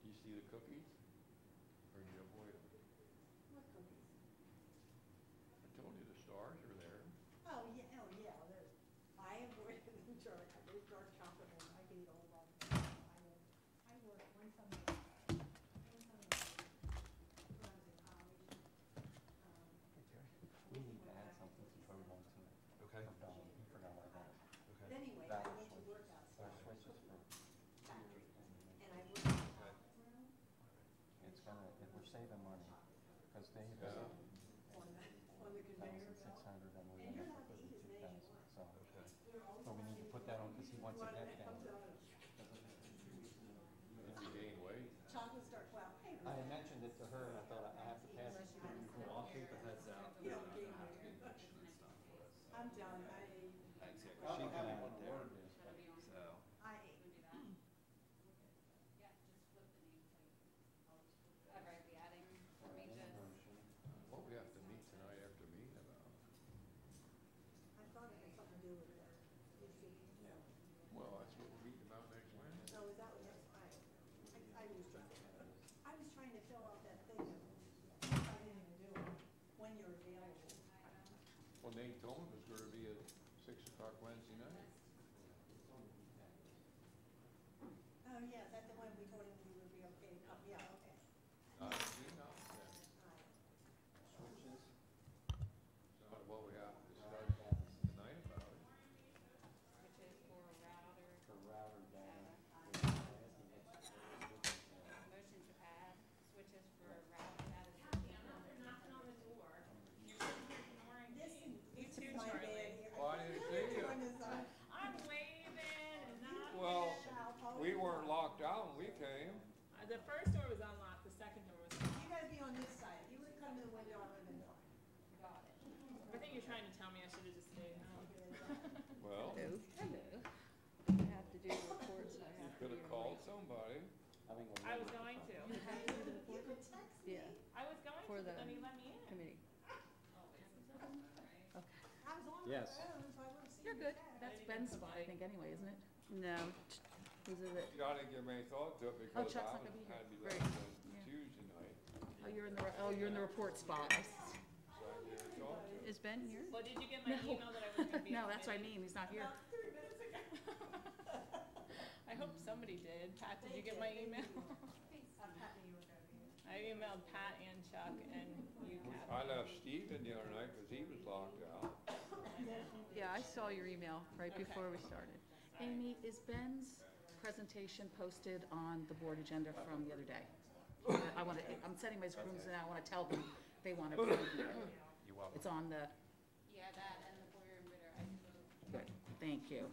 cookies? Or you avoid them? What cookies? I told you the stars are there. Oh, yeah, oh, yeah, well, there's, I avoid the dark, there's dark chocolate and I can eat all of them. I will, I work one summer, one summer, when I was in college, um, We need to add something to Troy one too. Okay. For Dawn, you forgot about that. but anyway, I That went to was- work Our outside. switches for, Factory. And I worked in the chocolate room it's gonna, if we're saving money, because they. Yeah. on the, on the conveyor Thousand six belt. hundred and we And you're ended allowed up to with eat as fifty-two many as you thousand, want. so. Okay. They're always So we need to put wanting that on, because he wants it one that that down. comes out of- If you gain weight, Chocolate starts, well, hey, I had mentioned it to her and I thought I have to pass it to you. Well, I'll take the heads out. You don't and gain I'll have to weight. get mention and stuff for us. I'm done, I, Thanks, yeah, She 'cause she can kinda add went it there. there it is, but So, I ate. Ever I'd be adding for any Regis. version, what we have to meet tonight after meeting about? I thought it had something to do with that. You see? Yeah. Well, that's what we're meeting about next Wednesday. So is that what that's, I, I, I was trying, I was trying to fill out that thing of, I didn't even do it, when you're available. Well, Nate told him it was gonna be at six o'clock Wednesday night. Oh, yeah, is that the one we told him we would be okay, oh, yeah, okay. Not at the email, yeah. All right. Switches. Not what we have to router discuss data, tonight about it. which is for router, For router data. motion to add switches for router, that is. They're knocking on the door. This, this too, is my Charlie. bad here. Well, I didn't You're see you. doing this uh, on- I'm waving and knocking. Well, I'll- we weren't locked out when we came. Uh, The first door was unlocked, the second door was unlocked. You gotta be on this side, you would come to the window, I would have been fine. Got it. I think you're trying to tell me I should have just stayed home. Well, you Hello. I have to do reports and I have to could do. have called somebody. I think we'll I was leave it going for- to. You could text me. Yeah. I was going For to, but the- then he let me in. Oh, Committee. I was on my Yes. phone, so I wouldn't see You're your good. text. That's Ben's spot, I think, anyway, isn't it? No, was it at, I didn't give any thought to it because Oh, Chuck's I not was, gonna be here. had to be Great. left on Yeah. Tuesday night. oh, you're in the, re- oh, you're in the report spot. I s- So I didn't talk to him. Is Ben here? Well, did you get my email that I was gonna be? No, in that's what I committee? mean, he's not here. About three minutes ago. I hope somebody did. Pat, did They you get my did, they email? I'm happy you were there. Rita. I emailed Pat and Chuck and you, I Pat. left Steven the other night because he was locked out. Yeah, I saw your email right Okay. before we started. Amy, is Ben's presentation posted on the board agenda from the other day? I- I want to, I'm sending my rooms and I want to tell them they want to preview it. You welcome. It's on the, Yeah, that and the foyer and Ritter, I good, thank you.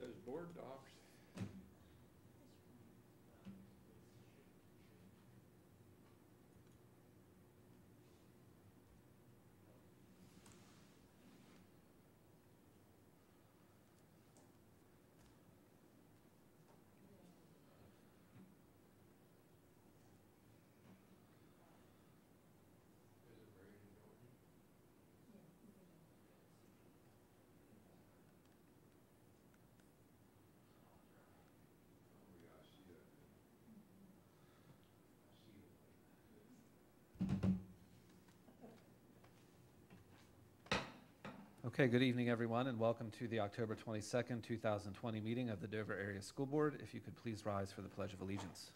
Says board docs. Is it raining, Dorothy? Oh, yeah, I see that. I see it. Okay, good evening, everyone, and welcome to the October 22nd, 2020 meeting of the Dover Area School Board. If you could please rise for the Pledge of Allegiance.